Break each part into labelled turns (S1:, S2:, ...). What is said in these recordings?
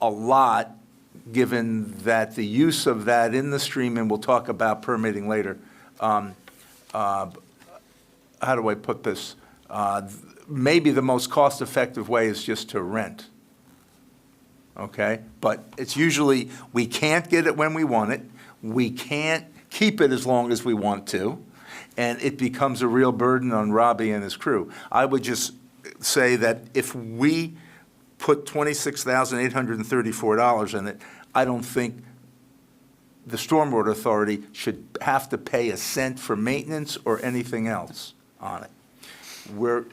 S1: a lot, given that the use of that in the stream, and we'll talk about permitting later, um, uh, how do I put this? Uh, th- Maybe the most cost-effective way is just to rent, okay? But it's usually, we can't get it when we want it, we can't keep it as long as we want to, and it becomes a real burden on Robbie and his crew. I would just say that if we put $26,834 in it, I don't think the Stormwater Authority should have to pay a cent for maintenance or anything else on it. We're,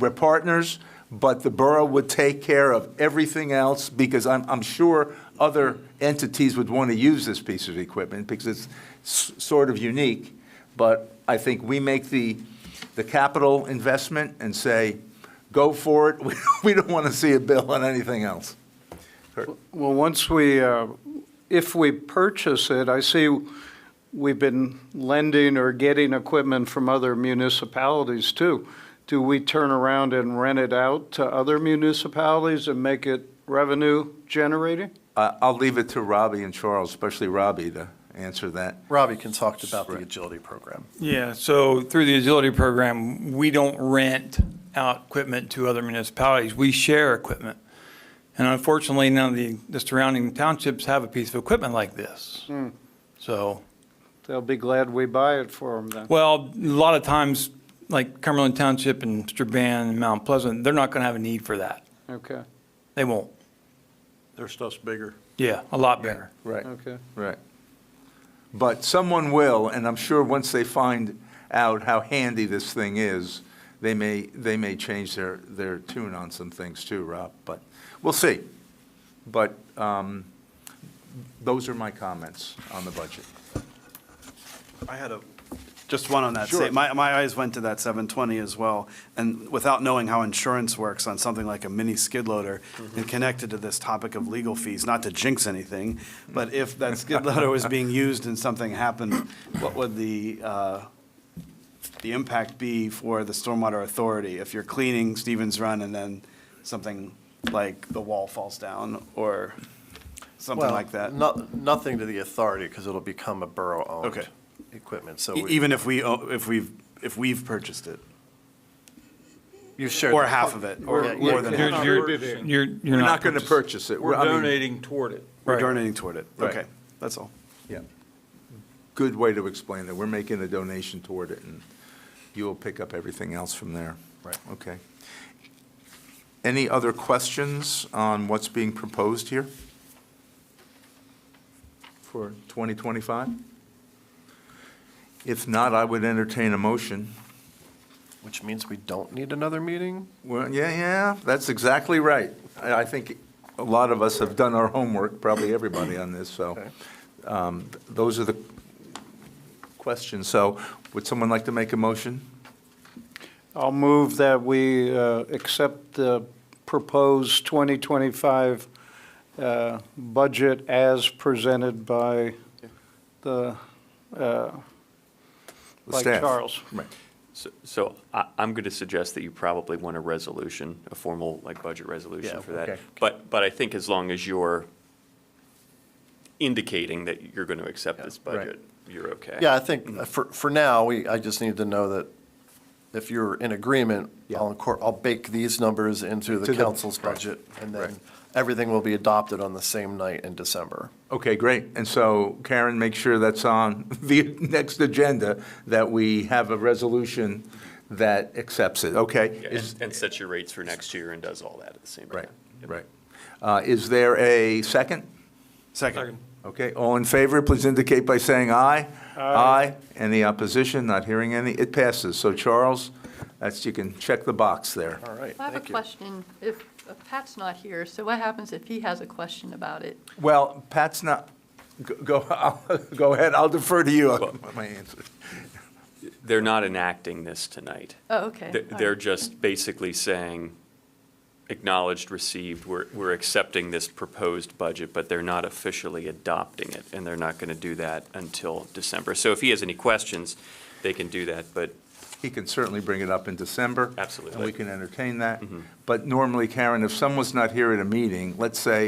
S1: we're partners, but the borough would take care of everything else because I'm, I'm sure other entities would want to use this piece of equipment because it's s- sort of unique. But I think we make the, the capital investment and say, go for it. We don't want to see a bill on anything else.
S2: Well, once we, uh, if we purchase it, I see we've been lending or getting equipment from other municipalities too. Do we turn around and rent it out to other municipalities and make it revenue generating?
S1: Uh, I'll leave it to Robbie and Charles, especially Robbie, to answer that.
S3: Robbie can talk about the agility program.
S4: Yeah, so through the agility program, we don't rent out equipment to other municipalities. We share equipment. And unfortunately, none of the, the surrounding townships have a piece of equipment like this. So,
S2: They'll be glad we buy it for them then.
S4: well, a lot of times, like Cumberland Township and Strabane and Mount Pleasant, they're not going to have a need for that.
S2: Okay,
S4: They won't.
S5: Their stuff's bigger.
S4: Yeah, a lot bigger.
S1: Right.
S2: okay.
S1: Right. But someone will, and I'm sure once they find out how handy this thing is, they may, they may change their, their tune on some things too, Rob, but we'll see. But um, those are my comments on the budget.
S5: I had a, just one on that.
S1: Sure.
S5: same- My, my eyes went to that 720 as well. And without knowing how insurance works on something like a mini skid loader and connected to this topic of legal fees, not to jinx anything, but if that skid loader was being used and something happened, what would the, uh, the impact be for the stormwater authority? If you're cleaning Stevens Run and then something like the wall falls down or something
S3: Well,
S5: like that?
S3: No, nothing to the authority, because it'll become a borough-owned
S5: Okay.
S3: equipment, so.
S5: E-
S3: we-
S5: Even if we, o- if we've, if we've purchased it?
S3: You shared.
S5: Or half of it, or
S3: Yeah, yeah.
S5: more than
S4: You're,
S5: half.
S4: you're, you're you're
S1: We're
S4: not.
S1: not going to purchase it.
S6: We're
S1: I mean,
S6: donating toward it.
S5: We're
S4: Right.
S5: donating toward it.
S1: Right.
S5: Okay, that's all.
S1: Yeah. Good way to explain that. We're making a donation toward it, and you'll pick up everything else from there.
S3: Right.
S1: Okay. Any other questions on what's being proposed here for 2025? If not, I would entertain a motion.
S3: Which means we don't need another meeting?
S1: Well, yeah, yeah, that's exactly right. I I think a lot of us have done our homework, probably everybody on this, so
S3: Okay.
S1: um, those are the questions. So would someone like to make a motion?
S2: I'll move that we uh, accept the proposed 2025 uh, budget as presented by the, uh,
S1: The
S2: by
S1: staff.
S2: Charles.
S1: Right.
S7: So- So I, I'm going to suggest that you probably want a resolution, a formal, like, budget
S3: Yeah,
S7: resolution for
S1: okay.
S7: that. But, but I think as long as you're indicating that you're going to accept this
S1: right.
S7: budget, you're okay.
S3: Yeah, I think uh, for, for now, we, I just need to know that if you're in agreement,
S1: Yeah.
S3: I'll incor, I'll bake these numbers into
S1: To
S3: the
S1: the-
S3: council's budget, and
S1: right.
S3: then everything will be adopted on the same night in December.
S1: Okay, great. And so Karen, make sure that's on the next agenda, that we have a resolution that accepts it. Okay?
S7: Yeah,
S1: Is-
S7: And and sets your rates for next year and does all that at the same time.
S1: Right, right. Uh, Is there a second?
S5: Second.
S1: Okay, all in favor, please indicate by saying aye. Aye. Any opposition? Not hearing any? It passes. So Charles, that's, you can check the box there.
S3: All right,
S8: I have a
S3: thank you.
S8: question. If if Pat's not here, so what happens if he has a question about it?
S1: Well, Pat's not, go- go, I'll- go ahead, I'll defer to you on
S7: Well-
S1: my answer.
S7: They're not enacting this tonight.
S8: Oh, okay.
S7: They're- They're just basically saying, acknowledged, received, we're, we're accepting this proposed budget, but they're not officially adopting it, and they're not going to do that until December. So if he has any questions, they can do that, but
S1: He can certainly bring it up in December.
S7: Absolutely. Mm-hmm.
S1: And we can entertain that. But normally, Karen, if someone's not here at a meeting, let's say